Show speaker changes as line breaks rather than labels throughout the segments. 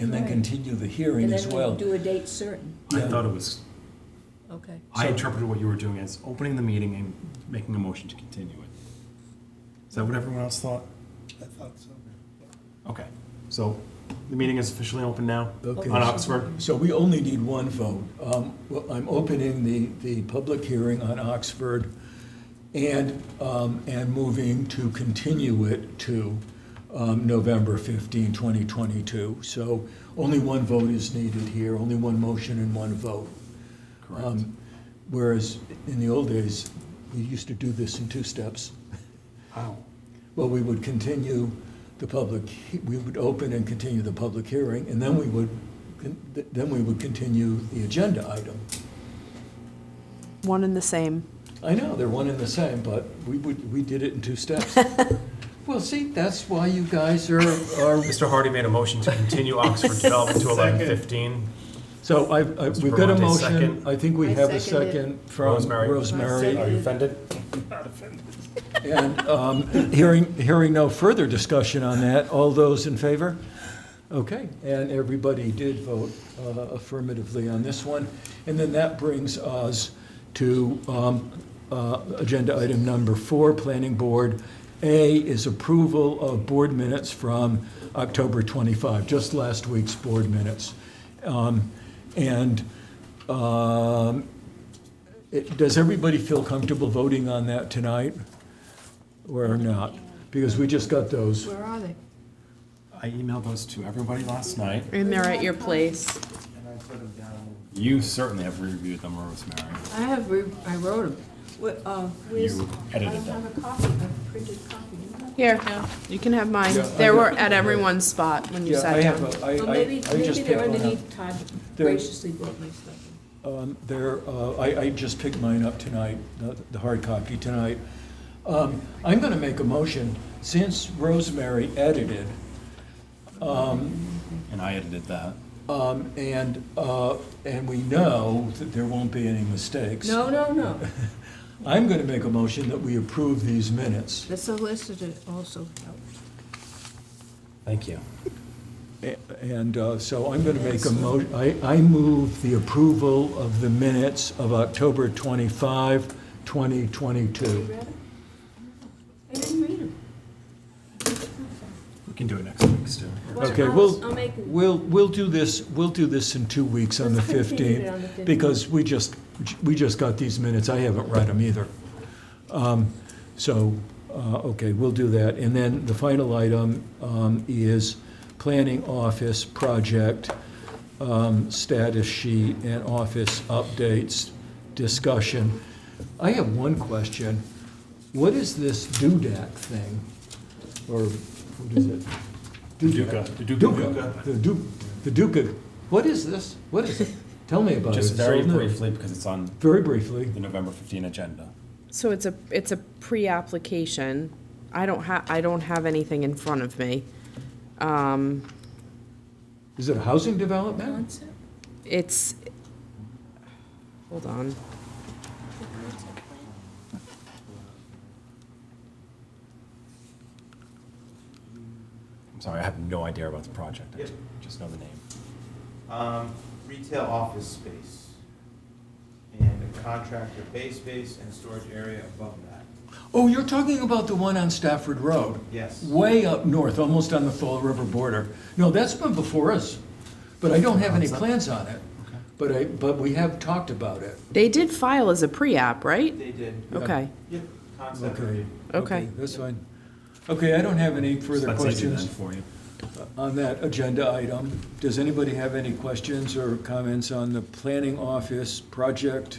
and then
Right.
continue the
And
hearing as
then
well.
we do a date certain,
I
Yeah.
thought it was,
okay.
I
So-
interpreted what you were doing as opening the meeting and making a motion to continue it. Is that what everyone else thought?
I thought so.
Okay, so the meeting is officially open now
Okay.
on Oxford.
So we only need one vote. Um, well, I'm opening the, the public hearing on Oxford and, um, and moving to continue it to um, November 15, 2022. So only one vote is needed here, only one motion and one vote.
Correct.
Um, Whereas in the old days, we used to do this in two steps.
How?
Well, we would continue the public, he- we would open and continue the public hearing, and then we would, con- th- then we would continue the agenda item.
One and the same.
I know, they're one and the same, but we would, we did it in two steps. Well, see, that's why you guys are, are,
Mr. Hardy made a motion to continue Oxford Development to eleven fifteen.
so I, I- we've got a
Bronte,
motion.
second.
I think we
I
have a
second it.
second from
Rosemary.
Rosemary.
Are you offended?
And um, hearing, hearing no further discussion on that, all those in favor? Okay, and everybody did vote uh, affirmatively on this one. And then that brings us to um, uh, agenda item number four, Planning Board. A is approval of board minutes from October 25, just last week's board minutes. Um, And um, it- does everybody feel comfortable voting on that tonight? Or not, because we just got those.
Where are they?
I emailed those to everybody last night.
And they're at your place.
And I put them down.
You certainly have reviewed them, Rosemary.
I have, re- I wrote uh, them.
You
I
edited
don't
them.
have a copy, a printed copy. you know?
Here, you can have mine.
Yeah, I
They
got-
were at everyone's spot when you
Yeah, I
sat
have
down.
a, I,
Well,
I, I
maybe, maybe
just picked
they're
one up.
underneath, Todd
They're-
graciously brought my stuff.
Um, There, uh, I, I just picked mine up tonight, the, the hard copy tonight. Um, I'm gonna make a motion, since Rosemary edited,
And I edited that.
um, and, uh, and we know that there won't be any mistakes.
No, no, no,
I'm gonna make a motion that we approve these minutes.
the solicitor also helped.
Thank you.
A- And uh, so I'm going to make a mo, I, I move the approval of the minutes of October 25, 2022.
I didn't read them.
We can do it next week, Stu.
Okay,
Well,
we'll,
I'll, I'll make, it-
we'll, we'll do this, we'll do this in two weeks on the
Let's continue it
15th.
on the 15th.
Because we just, we just got these minutes, I haven't read them either. Um, So, uh, okay, we'll do that. And then the final item um, is planning office project um, status sheet and office updates discussion. I have one question. What is this DUDAC thing? Or what is it?
Duca. The Duca.
Duca. The Duca. The Duca. What is this? What is it? Tell me about it.
Just
It's
very
old news.
briefly, because it's on
Very briefly.
the November fifteen agenda.
So it's a, it's a pre-application. I don't ha, I don't have anything in front of me. Um,
Is it housing development?
it's, hold on.
I'm sorry, I have no idea about the project. I just know the name.
Um, retail office space. And a contractor bay space and storage area above that.
Oh, you're talking about the one on Stafford Road?
Yes.
Way up north, almost on the Fall River border. No, that's been before us, but I don't have any plans on it. But I, but we have talked about it.
They did file as a pre-app, right?
They did,
Okay,
yep, concept
Okay.
review.
Okay.
That's fine. Okay, I don't have any
So
further
that's easy then
questions
for you.
on that agenda item. Does anybody have any questions or comments on the planning office project,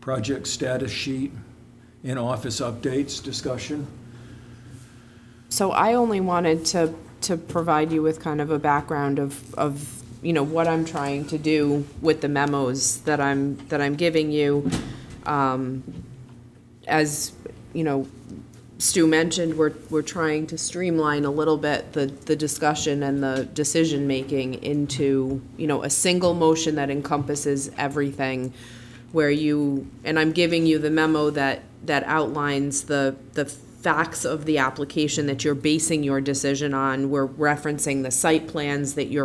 project status sheet, and office updates discussion?
So I only wanted to, to provide you with kind of a background of, of, you know, what I'm trying to do with the memos that I'm, that I'm giving you. Um, As, you know, Stu mentioned, we're, we're trying to streamline a little bit the, the discussion and the decision-making into, you know, a single motion that encompasses everything, where you, and I'm giving you the memo that, that outlines the, the facts of the application that you're basing your decision on. We're referencing the site plans that you're